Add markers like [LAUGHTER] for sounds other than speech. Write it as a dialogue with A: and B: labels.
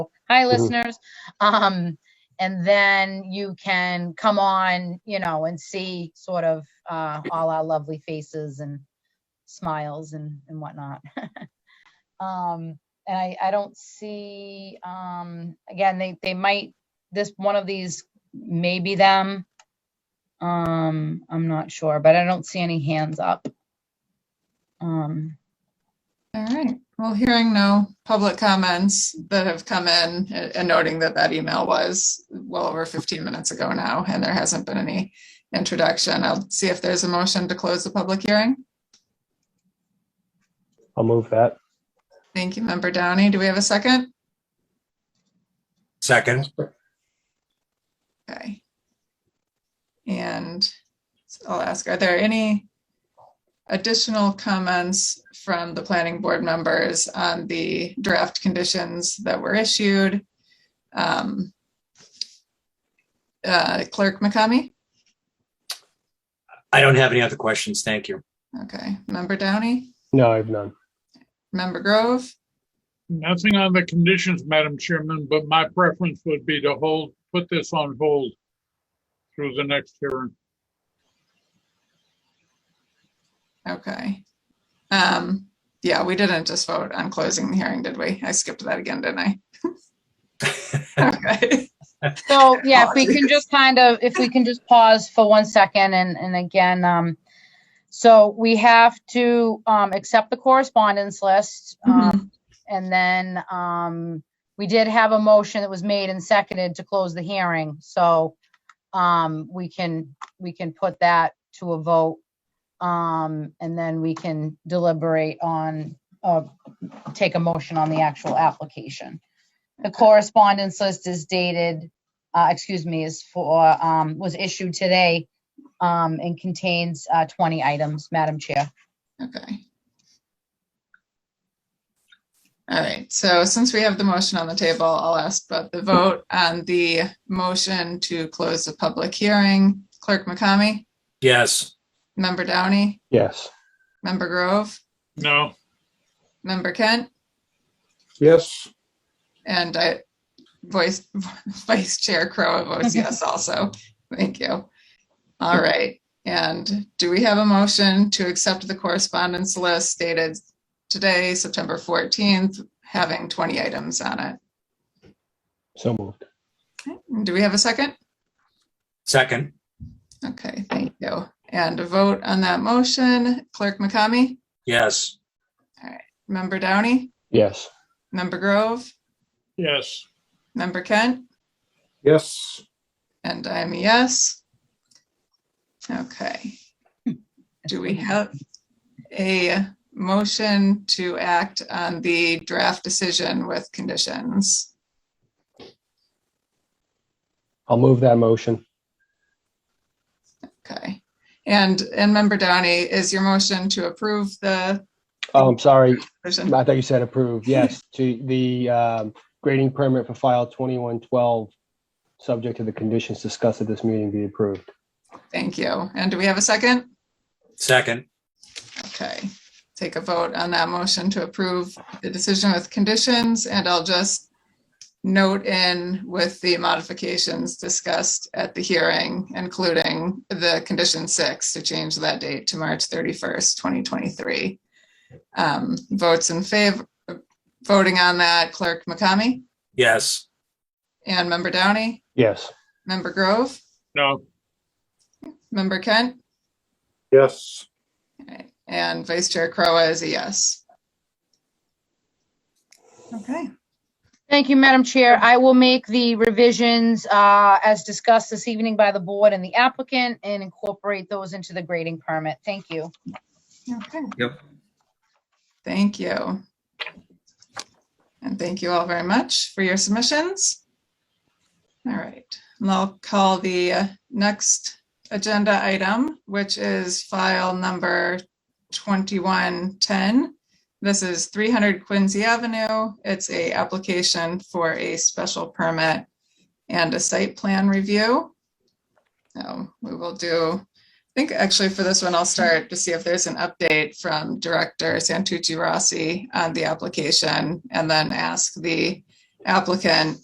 A: hi,
B: Mhm.
A: listeners. Um, and then you can come on, you know, and see sort of, uh, all our lovely faces and smiles and, and whatnot. [LAUGHS] Um, and I, I don't see, um, again, they, they might, this, one of these may be them. Um, I'm not sure, but I don't see any hands up. Um,
C: All right, well, hearing no public comments that have come in a- and noting that that email was well over 15 minutes ago now, and there hasn't been any introduction, I'll see if there's a motion to close the public hearing.
B: I'll move that.
C: Thank you, Member Downey. Do we have a second?
D: Second,
C: Okay. And I'll ask, are there any additional comments from the planning board members on the draft conditions that were issued? Um, uh, Clerk McCamey?
D: I don't have any other questions. Thank you.
C: Okay. Member Downey?
B: No, I have none.
C: Member Grove?
E: Nothing on the conditions, Madam Chairman, but my preference would be to hold, put this on hold through the next hearing.
C: Okay. Um, yeah, we didn't just vote on closing the hearing, did we? I skipped that again, didn't I? [LAUGHS] Okay.
A: So, yeah, if we can just kind of, if we can just pause for one second and, and again, um, so we have to, um, accept the correspondence list. Um, and then, um, we did have a motion that was made and seconded to close the hearing, so, um, we can, we can put that to a vote. Um, and then we can deliberate on, uh, take a motion on the actual application. The correspondence list is dated, uh, excuse me, is for, um, was issued today, um, and contains, uh, twenty items, Madam Chair.
C: Okay. All right, so since we have the motion on the table, I'll ask about the vote on the motion to close the public hearing. Clerk McCamey,
D: Yes,
C: Member Downey,
B: Yes.
C: Member Grove,
E: No,
C: Member Kent,
B: Yes.
C: and I, Vice, [LAUGHS] Vice Chair Crowe votes yes also. Thank you. All right, and do we have a motion to accept the correspondence list dated today, September 14th, having 20 items on it?
B: So moved.
C: Do we have a second?
D: second,
C: Okay, thank you. And a vote on that motion, Clerk McCamey,
D: yes,
C: Member Downey,
B: Yes.
C: Member Grove,
E: yes,
C: Member Kent,
B: Yes.
C: and I am a yes. Okay, do we have a motion to act on the draft decision with conditions?
B: I'll move that motion.
C: Okay, and, and Member Downey, is your motion to approve the?
B: Oh, I'm sorry.
C: decision?
B: I thought you said approved. Yes, to the um, grading permit for file 2112, subject to the conditions discussed at this meeting be approved.
C: Thank you. And do we have a second?
D: second,
C: Okay, take a vote on that motion to approve the decision with conditions, and I'll just note in with the modifications discussed at the hearing, including the condition six to change that date to March thirty-first, twenty twenty-three. Um, votes in favor, voting on that Clerk McCamey
D: yes,
C: and Member Downey,
B: Yes.
C: Member Grove,
E: no,
C: Member Kent,
B: Yes.
C: and Vice Chair Crowe is a yes. Okay.
A: Thank you, Madam Chair. I will make the revisions, uh, as discussed this evening by the board and the applicant and incorporate those into the grading permit. Thank you.
C: Okay.
D: Yep.
C: Thank you. And thank you all very much for your submissions. All right, and I'll call the uh, next agenda item, which is file number 2110. This is 300 Quincy Avenue. It's a application for a special permit and a site plan review. So we will do I think actually for this one, I'll start to see if there's an update from Director Santucci Rossi on the application and then ask the applicant